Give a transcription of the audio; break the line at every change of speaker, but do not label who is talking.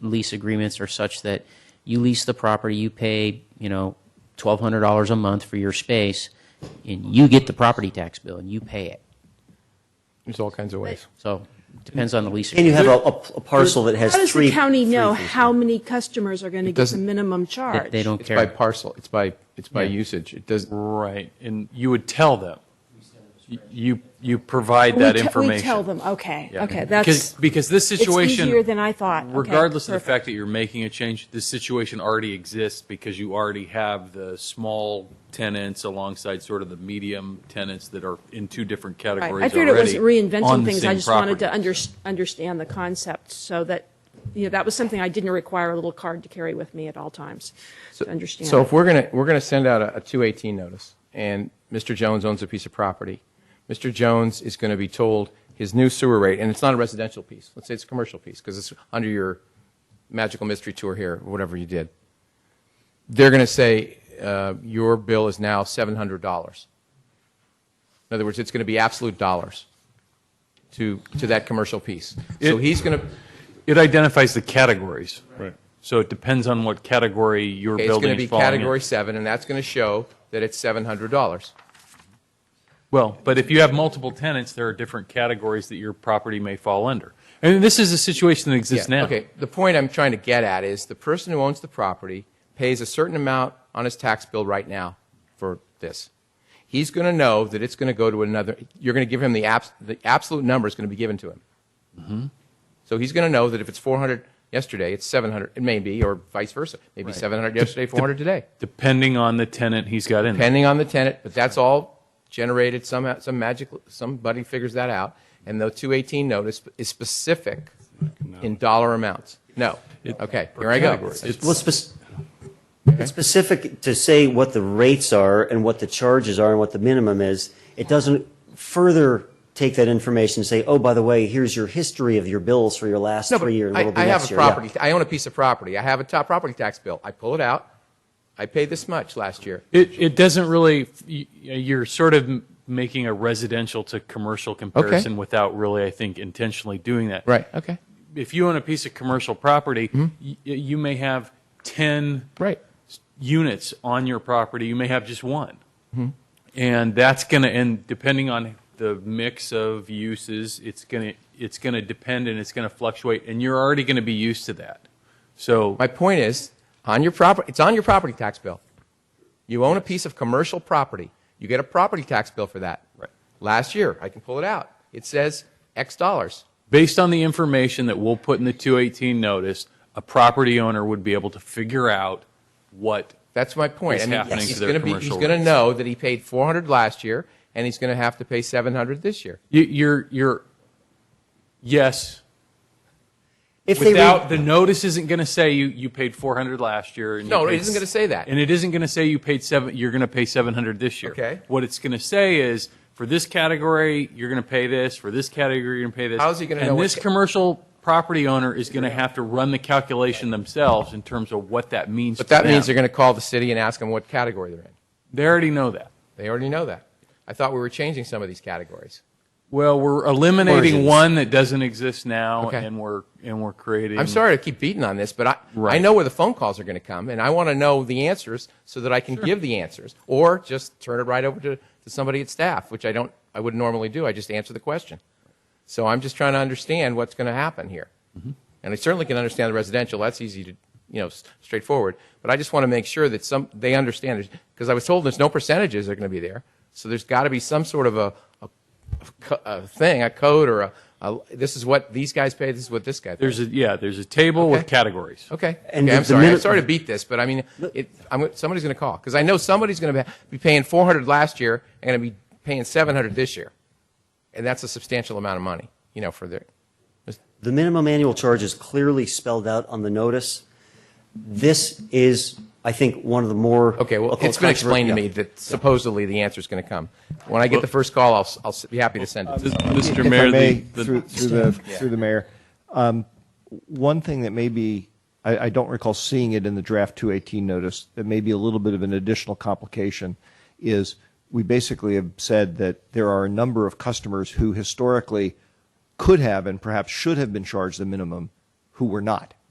lease agreements are such that you lease the property, you pay, you know, twelve hundred dollars a month for your space, and you get the property tax bill and you pay it.
There's all kinds of ways.
So depends on the lease.
And you
agreement.
have a, a- a parcel that has
How does
three.
the county
three
know
fees.
how many customers are going to get the
doesn't-
minimum charge?
They don't
It's by
care.
parcel, it's by, it's by
Yeah.
usage. It does,
Right, and you would tell them. You, you provide
We
that
te-
information.
We tell them, okay,
Yeah.
okay,
Because,
that's,
because this situation.
easier than I thought. Okay,
Regardless of the
perfect.
fact that you're making a change, this situation already exists because you already have the small tenants alongside sort of the medium tenants that are in two different
right.
categories
I figured it was
already on
reinventing
the
things, I
same
just wanted to
property.
under, understand the concept, so that, you know, that was something I didn't require a little card to carry with me at all times, to understand.
So
it.
if we're gonna, we're gonna send out a, a two eighteen notice, and Mr. Jones owns a piece of property. Mr. Jones is gonna be told his new sewer rate, and it's not a residential piece, let's say it's a commercial piece, because it's under your magical mystery tour here, or whatever you did. They're gonna say, uh, your bill is now seven hundred dollars. In other words, it's gonna be absolute dollars to, to that commercial piece. So
It-
he's gonna,
It identifies the categories.
Right.
So it depends on what category your
okay, it's
building
gonna
is
be
falling in.
category seven, and that's gonna show that it's seven hundred dollars.
Well, but if you have multiple tenants, there are different categories that your property may fall under. And this is a situation that exists
Yeah,
now.
Okay, the point I'm trying to get at is the person who owns the property pays a certain amount on his tax bill right now for this. He's going to know that it's going to go to another, you're going to give him the, abs, the absolute number is going to be given to him.
Mm-hmm.
So he's going to know that if it's 400 yesterday, it's 700, it may be, or vice versa. Maybe 700 yesterday, 400 today,
Depending on the tenant he's got in there.
depending on the tenant, but that's all generated somehow, some magical, somebody figures that out. And the 218 notice is specific in dollar amounts. No. okay, here I go.
It's-
Well, it's spec- it's specific to say what the rates are and what the charges are and what the minimum is. It doesn't further take that information and say, oh, by the way, here's your history of your bills for your last
No, but
three years.
I, I have a property. I own a piece of property. I have a top property tax bill. I pull it out. I paid this much last year.
It, it doesn't really, y- you're sort of m- making a residential to commercial comparison without really, I think, intentionally doing that.
Okay.
If you own a piece of commercial property,
Mm-hmm.
y- you may have 10
Right.
s- units on your property, you may have just one. And that's going to, and depending on the mix of uses, it's going to, it's going to depend and it's going to fluctuate, and you're already going to be used to that. So,
My point is, on your property, it's on your property tax bill. You own a piece of commercial property. You get a property tax bill for that.
Right.
Last year, I can pull it out. It says X dollars.
based on the information that we'll put in the 218 notice, a property owner would be able to figure out what,
That's my point.
What's
I mean,
happening
he's
to their
gonna be, he's
commercial
going to
rates.
know that he paid 400 last year, and he's going to have to pay 700 this year.
you- you're, you're, yes,
If they re-
without, the notice isn't going to say you, you paid 400 last year. and you
No, it
paid
isn't
s-
gonna say that.
And it isn't going to say you paid seven, you're going to pay 700 this year.
Okay.
What it's going to say is, for this category, you're going to pay this, for this category, you're going to pay this.
How's he gonna
and
know what
this
ca-
commercial property owner is going to have to run the calculation themselves in terms of what that means
But that
to them.
means they're going to call the city and ask them what category they're in.
They already know that.
They already know that. I thought we were changing some of these categories.
Well, we're eliminating
Versions.
one that doesn't exist now,
Okay.
and we're and we're creating.
I'm sorry to keep beating on this, but I, I
Right.
know where the phone calls are going to come, and I want to know the answers so that I can give the answers, or just turn it right over to, to somebody at staff, which I don't, I wouldn't normally do. I just answer the question. So I'm just trying to understand what's going to happen here, and I certainly can understand the residential. That's easy to, you know, s- straightforward. But I just want to make sure that some they understand because I was told there's no percentages that are going to be there, so there's got to be some sort of a, a, co- a thing, a code, or a, a this is what these guys pay, this is what this guy. Pays.
There's a yeah. There's a table with
Okay.
categories.
Okay.
And
okay,
the-
I'm
the
sorry. I'm
minute-
sorry to beat this, but I mean, it, I'm, somebody's going to call because I know somebody's going to be paying 400 last year and going to be paying 700 this year, and that's a substantial amount of money, you know, for their.
The minimum annual charge is clearly spelled out on the notice. This is, I think, one of the more.
Okay, well,
I'll call
it's been
controver-
explained to me
yeah.
that supposedly the answer is going to come. When I get the first call, I'll, s- I'll s- be happy to
Uh,
send it.
If
Mr.
I
Mayor,
may,
the- the-
through, through the through the mayor, um, one thing that may be I, I don't recall seeing it in the draft 218 notice that may be a little bit of an additional complication is we basically have said that there are a number of customers who historically could have and perhaps should have been charged the minimum who were not.